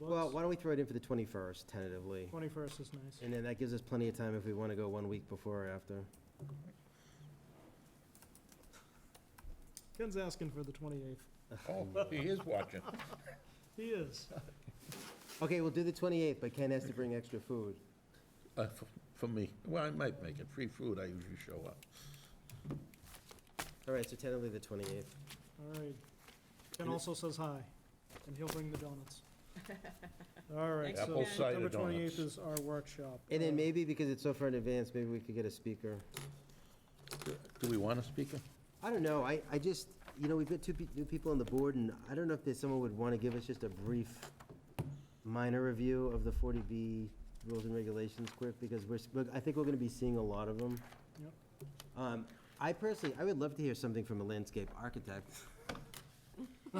Well, books. why don't we throw it in for the 21st tentatively? Twenty-first is nice. And then that gives us plenty of time if we want to go one week before or after. Ken's asking for the twenty-eighth. Oh, he is watching. He is. Okay, we'll do the 28th, but Ken has to bring extra food. Uh, f- For me, well, I might make it, free food, I usually show up. All right, so tentatively the 28th. All right. Ken And it- also says hi, and he'll bring the donuts. All right, Thanks, so Apple Ken. cider September twenty-eighth donuts. is our workshop. And then Uh, maybe, because it's so far in advance, maybe we could get a speaker. Do we want a speaker? I don't know, I, I just, you know, we've got two pe- new people on the board, and I don't know if there's someone would want to give us just a brief minor review of the 40B rules and regulations quick, because we're, s- we're- I think we're going to be seeing a lot of them. Yep. Um, I personally, I would love to hear something from a landscape architect,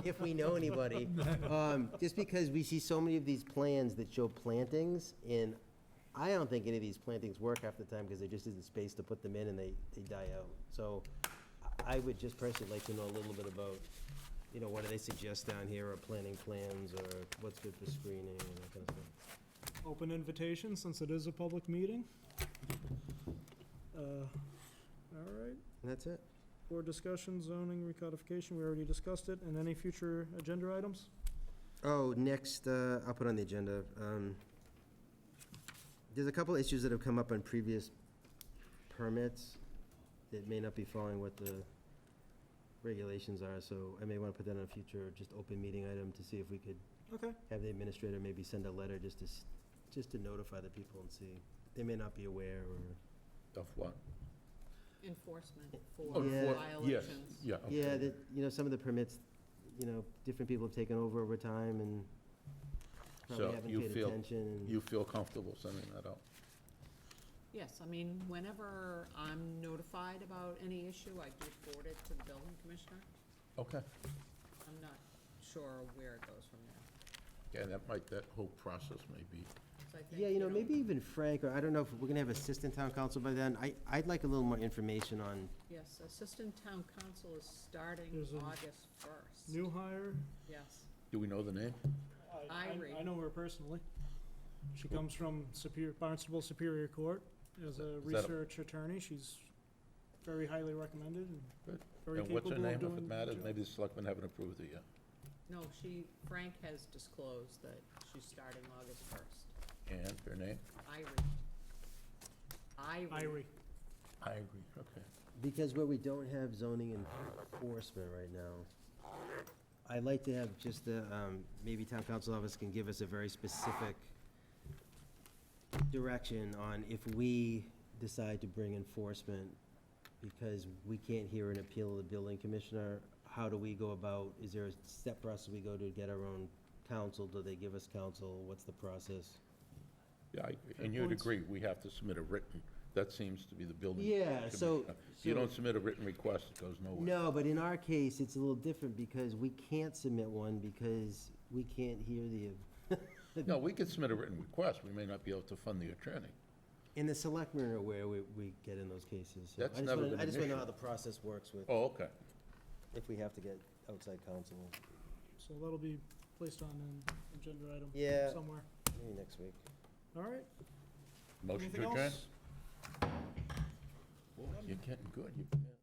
if we know anybody. Um, Just because we see so many of these plans that show plantings, and I don't think any of these plantings work half the time because there just isn't space to put them in and they, they die out. So I I would just personally like to know a little bit about, you know, what do they suggest down here, or planting plans, or what's good for screening and that kind of stuff. Uh, Open invitation, since it is a public meeting. Uh, All right, And that's it. board discussion, zoning recodification, we already discussed it, and any future agenda items? Oh, next, uh, I'll put on the agenda. um, There's a couple issues that have come up on previous permits that may not be following what the regulations are, so I may want to put that on a future, just open meeting item to see if we could Okay, have the administrator maybe send a letter just to, s- just to notify the people and see. They may not be aware or, Of what? enforcement Oh, for Yeah. for- Yes, violations. yeah. okay. yeah, that, you know, some of the permits, you know, different people have taken over over time and So probably haven't you paid feel- attention. and- You feel comfortable sending that out? Yes, I mean, whenever I'm notified about any issue, I do forward it to the building commissioner. Okay. I'm not sure where it goes from there. Yeah, that might, that whole process may be, So I think, Yeah, you know, maybe even Frank, or I don't know if we're gonna have assistant town council by then. I, I'd like a little more information on, Yes, assistant town council is starting There's an- August first. new hire. Yes, do we know the name? I- Irie. I know her personally. She comes from Superior, Barnstable Superior Court as a Is that a- research attorney. She's very highly recommended and Good. very And what's capable her of doing. name if it matters? the job. Maybe the selectmen haven't approved it yet. no, she, Frank has disclosed that she's starting August first. And her name? Irie. Irie. Irie, I agree. Okay. because where we don't have zoning enforcement right now, I'd like to have just the, um, maybe town council office can give us a very specific direction on if we decide to bring enforcement, because we can't hear an appeal of the building commissioner, how do we go about, is there a step process we go to get our own counsel? Do they give us counsel? What's the process? Yeah, I agree. Fair And you'd points. agree, we have to submit a written, that seems to be the building. Yeah, so- commissioner. If you so- don't submit a written request, it goes nowhere. No, but in our case, it's a little different because we can't submit one because we can't hear the, No, we could submit a written request, we may not be able to fund the attorney. and the selectmen are aware we, we get in those cases. so I That's just never wanna- been I an just want to know issue. how the process works with, Oh, okay. if we have to get outside counsel, so that'll be placed on an agenda item Yeah. somewhere. maybe next week. All right, Motion anything to adjourn? else? Boy, You're getting good. You-